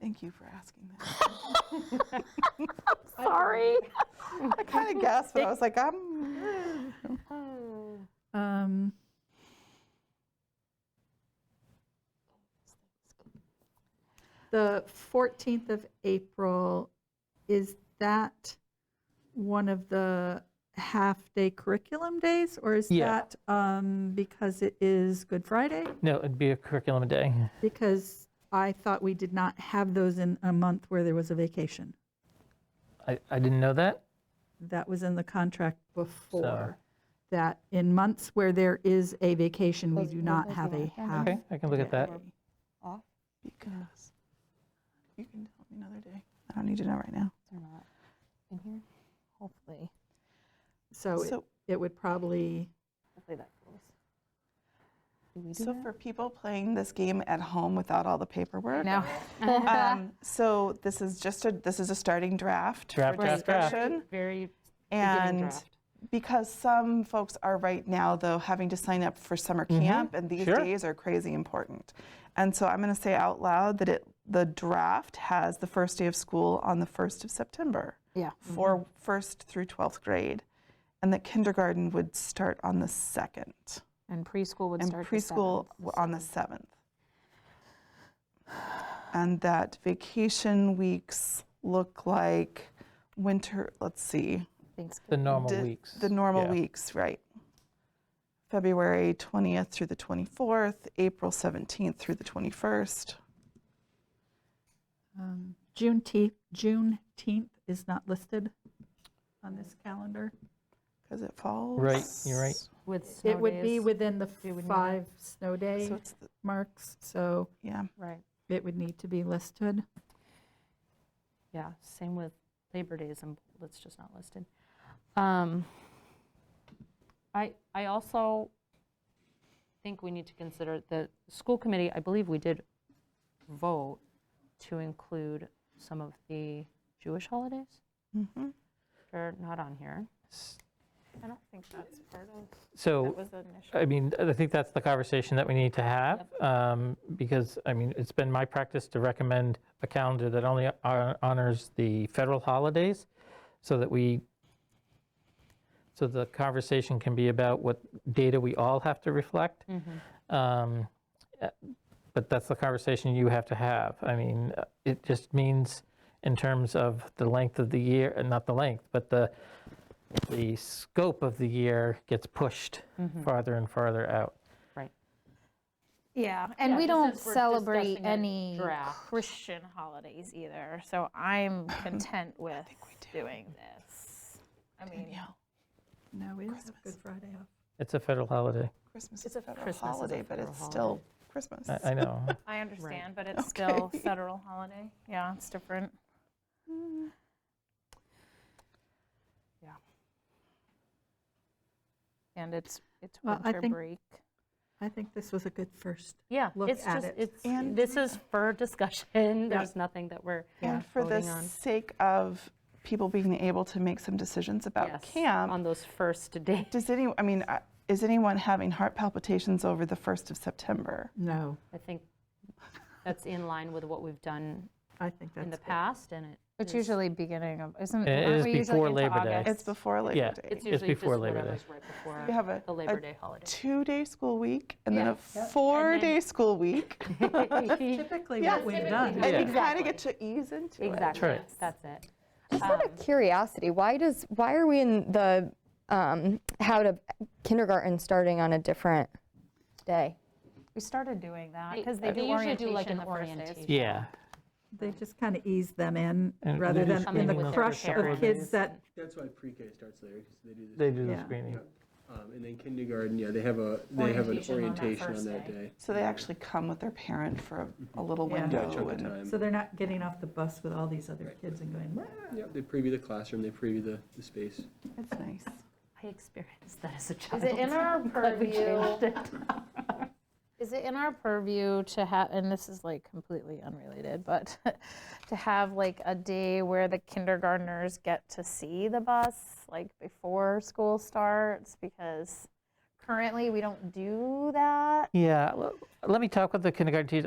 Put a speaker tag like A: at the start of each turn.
A: Thank you for asking that.
B: Sorry.
A: I kind of guessed, but I was like, I'm.
C: Um, The 14th of April, is that one of the half-day curriculum days? Or is
D: Yeah.
C: that um, because it is Good Friday?
D: No, it'd be a curriculum day.
C: Because I thought we did not have those in a month where there was a vacation.
D: I, I didn't know that.
C: That was in the contract before, that in months where there is a vacation, we
B: Those
C: do
B: were
C: not
B: those
C: have a
B: last ones.
A: Ah.
C: half.
D: Okay, I can look at that.
C: day.
B: Off
A: Because you can tell me another day. I don't need to know right now.
B: or not in here? Hopefully,
C: So it-
A: So,
C: it would probably,
B: hopefully that goes. Do we do
A: so
B: that?
A: for people playing this game at home without all the paperwork.
B: No.
A: um, so this is just a this is a starting draft
D: Draft,
A: for
D: draft, draft.
A: discussion,
E: Very beginning
A: and
E: draft.
A: because some folks are right now though having to sign up for summer camp, and these
D: Mm-hmm. Sure.
A: days are crazy important. And so I'm going to say out loud that it the draft has the first day of school on the first of September
B: Yeah.
A: for first through twelfth grade, and that kindergarten would start on the second,
E: And preschool would
A: and
E: start. the
A: preschool
E: seventh.
A: w- on the seventh. And that vacation weeks look like winter. Let's see.
D: The
E: Thanksgiving.
D: normal
A: The-
D: weeks.
A: The normal
D: yeah.
A: weeks, right. February 20th through the 24th, April 17th through the 21st.
C: um, Juneteenth, Juneteenth is not listed on this calendar.
A: Because it falls.
D: Right, you're right.
E: With snow
C: It would be
E: days.
C: within the
E: It would need-
C: five snow day
A: So it's, the-
C: marks, so
A: yeah.
E: Right,
C: it would need to be listed.
E: yeah, same with Labor Days, and it's just not listed. Um, I, I also think we need to consider the school committee, I believe we did vote to include some of the Jewish holidays.
A: Mhm.
E: They're not on here.
F: I don't think that's part of, that
D: So,
F: was initial.
D: I mean, I think that's the conversation that we need to have, um, because, I mean, it's been my practice to recommend a calendar that only hon- honors the federal holidays, so that we, so the conversation can be about what data we all have to reflect.
E: Mm-hmm.
D: Um, uh, But that's the conversation you have to have. I mean, uh, it just means in terms of the length of the year, uh, not the length, but the, the scope of the year gets pushed farther and farther out.
E: Right.
F: Yeah, and
E: Yeah,
F: we
E: just
F: don't
E: since we're
F: celebrate
E: discussing a
F: any
E: draft.
F: Christian holidays either, so I'm content with doing this. I mean,
C: No, we don't have Good Friday off.
D: It's a federal holiday.
A: Christmas is a federal
E: Christmas is a
A: holiday, but
E: federal
A: it's
E: holiday.
A: still Christmas.
D: I, I know.
F: I understand, but it's still federal holiday. Yeah, it's different.
E: Yeah.
F: And it's, it's
C: Well, I
F: winter
C: think-
F: break.
C: I think this was a good first.
E: Yeah,
C: Look
E: it's
C: at
E: just,
C: it.
E: it's,
A: And-
E: this is for discussion, there's nothing that we're
A: And for the
E: voting on.
A: sake of people being able to make some decisions about
E: Yes,
A: camp,
E: On those first days.
A: does any, I mean, uh, is anyone having heart palpitations over the 1st of September?
C: No,
E: I think that's in line with what we've done
C: I think that's.
E: in the
C: good.
E: past, and it.
F: It's
E: is-
F: usually beginning of, isn't,
D: It
F: aren't
D: is
F: we usually
D: before
F: into
D: Labor Day.
F: August?
A: It's before Labor
D: Yeah.
A: Day.
E: It's usually just
D: before Labor Day.
E: whatever's right
A: You have a-
E: before the
A: a
E: Labor Day holiday.
A: two day school week and then
E: Yeah.
A: a four day school week.
C: Typically
A: Yeah,
C: what we've
A: typically.
C: done.
A: And you kind
E: Exactly.
A: of get to ease into it.
E: Exactly,
D: right.
E: that's it.
G: Just out of curiosity, why does why are we in the um, how to kindergarten starting on a different day?
F: We started doing that
E: They-
F: because they
E: they
F: do
E: usually do, like, an
F: orientation the first day of
E: orientation.
D: Yeah.
C: They just kind of ease them in
D: And
C: rather
D: they
C: than
D: just
C: in
D: come
C: the
D: in with their
C: crush of
E: parents
C: kids that,
H: That's why pre-K starts there, because they do this.
D: They do the
C: Yeah.
D: screening.
H: Um, and then kindergarten, yeah, they have a, they have an
F: Orientation on that
H: orientation on
F: first
H: that
F: day.
H: day.
A: So they actually come with their parent for a, a little
C: Yeah.
H: Yeah,
A: window.
H: chunk of
A: and-
H: time.
C: so they're not getting off the bus with all these other kids and going, "Wah."
H: Yep, they preview the classroom, they preview the, the space.
A: It's nice.
E: I experienced that as a
F: Is
E: child.
F: it in our
E: But we
F: purview?
E: changed it.
F: Is it in our purview to have, and this is like completely unrelated, but to have like a day where the kindergartners get to see the bus, like before school starts? Because currently we don't do that.
D: Yeah, well, let me talk with the kindergarten teacher.